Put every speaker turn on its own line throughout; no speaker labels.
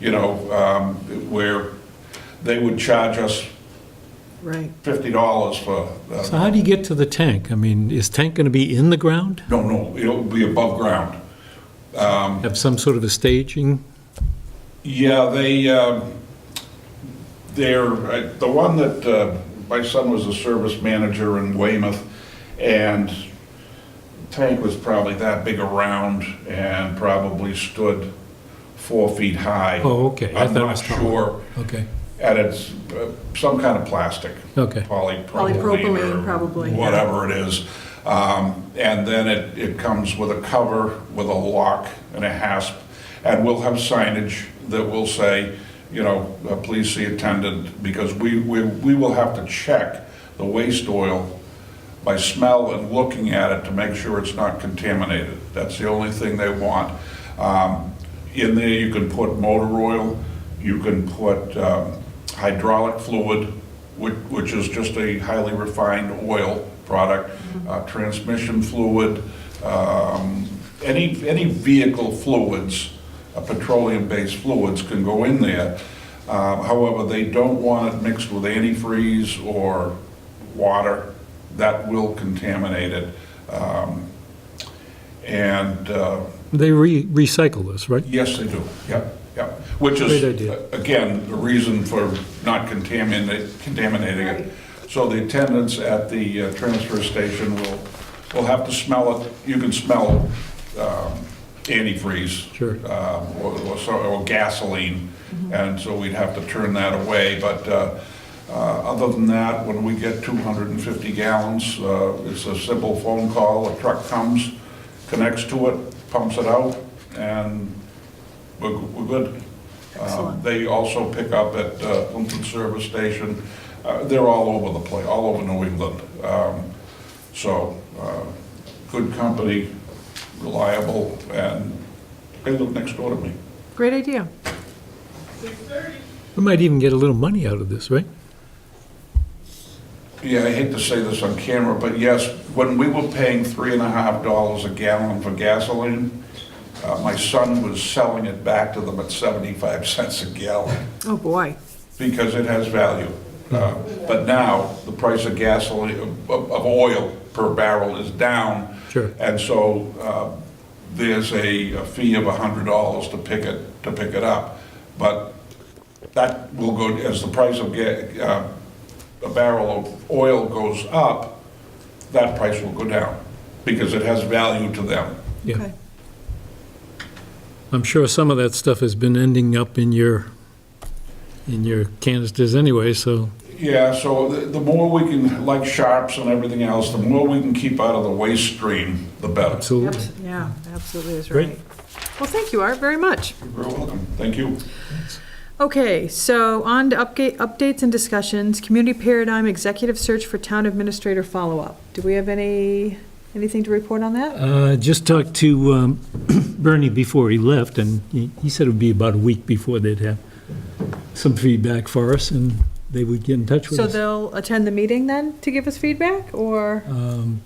you know, um, where they would charge us
Right.
fifty dollars for,
So
uh,
how do you get to the tank? I mean, is tank going to be in the ground?
no, no, it'll be above ground.
Have some sort of a staging?
Yeah, they, um, they're, uh, the one that, uh, my son was a service manager in Weymouth, and tank was probably that big around and probably stood four feet high.
Oh, okay. I
I'm
thought it
not
was taller.
sure,
Okay,
and it's uh, some kind of plastic.
okay.
Polypropylene
Polypropylene,
or
probably, yeah.
whatever it is. Um, And then it, it comes with a cover, with a lock and a hasp. And we'll have signage that will say, you know, uh, please see attendant, because we, we, we will have to check the waste oil by smell and looking at it to make sure it's not contaminated. That's the only thing they want. Um, In there, you can put motor oil, you can put um, hydraulic fluid, which which is just a highly refined oil product, uh, transmission fluid, um, any, any vehicle fluids, uh, petroleum-based fluids can go in there. Uh, However, they don't want it mixed with antifreeze or water that will contaminate it. Um, And, uh,
They re- recycle this, right?
yes, they do, yep, yep. Which is,
Great idea.
again, the reason for not contaminating, contaminating it. So the attendants at the uh, transfer station will, will have to smell it, you can smell um, antifreeze
Sure.
um, or or so- or gasoline, and so we'd have to turn that away. But uh, uh, other than that, when we get 250 gallons, uh, it's a simple phone call, a truck comes, connects to it, pumps it out, and we're we're good. Um,
Excellent.
They also pick up at uh, Plimpton Service Station. Uh, They're all over the place, all over New England. Um, So, uh, good company, reliable, and they live next door to me.
Great idea.
We might even get a little money out of this, right?
Yeah, I hate to say this on camera, but yes, when we were paying three and a half dollars a gallon for gasoline, uh, my son was selling it back to them at 75 cents a gallon
Oh, boy.
because it has value. Uh, But now, the price of gasoline, of- of oil per barrel is down.
Sure.
And so uh, there's a a fee of $100 to pick it, to pick it up. But that will go, as the price of ga- uh, a barrel of oil goes up, that price will go down because it has value to them.
Yeah.
Okay.
I'm sure some of that stuff has been ending up in your, in your canisters anyway, so,
Yeah, so the the more we can, like sharps and everything else, the more we can keep out of the waste stream, the better.
Yep,
absolutely.
yeah, absolutely is
Great.
right. Well, thank you, Art, very much.
You're very welcome. Thank you.
Okay, so on to upga- updates and discussions, community paradigm, executive search for town administrator follow-up. Do we have any, anything to report on that?
Uh, Just talked to um, Bernie before he left, and he he said it would be about a week before they'd have some feedback for us, and they would get in touch with
So
us.
they'll attend the meeting then to give us feedback, or,
Um,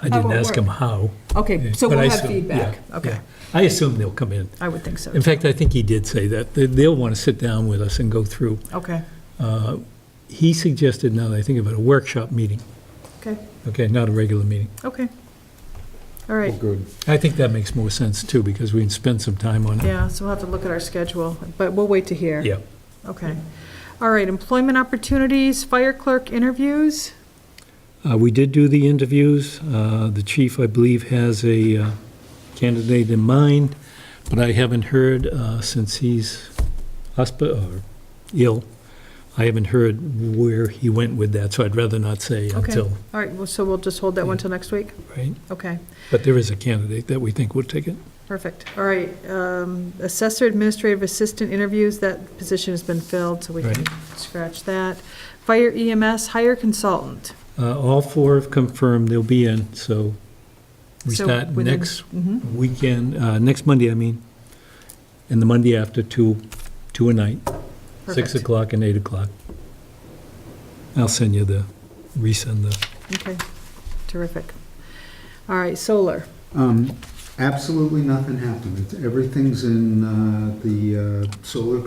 I
How
didn't
it
ask him
work?
how.
okay, so
but I
we'll have
assume-
feedback?
yeah,
Okay,
yeah. I assume they'll come in.
I would think so.
In fact, I think he did say that. They- They'll want to sit down with us and go through.
Okay,
Uh, He suggested, now that I think about it, a workshop meeting,
okay,
okay, not a regular meeting.
okay. All right.
Good.
I think that makes more sense, too, because we can spend some time on it.
Yeah, so we'll have to look at our schedule, but we'll wait to hear.
Yeah.
Okay. All right, employment opportunities, fire clerk interviews.
Uh, We did do the interviews. Uh, The chief, I believe, has a uh, candidate in mind, but I haven't heard, uh, since he's hospi- or ill, I haven't heard where he went with that, so I'd rather not say
Okay.
until,
All right, well, so we'll just hold that one till next week?
right?
Okay,
But there is a candidate that we think will take it.
perfect. All right, um, assessor administrative assistant interviews, that position has been filled, so we can
Right.
scratch that. Fire EMS hire consultant.
Uh, All four have confirmed they'll be in, so we
So
start
within-
next
Mhm.
weekend, uh, next Monday, I mean, and the Monday after, two, two a night, 6
Perfect.
o'clock and 8 o'clock. I'll send you the, resend the,
Okay, terrific. All right, solar.
Um, absolutely nothing happened. It's- Everything's in, uh, the, uh, solar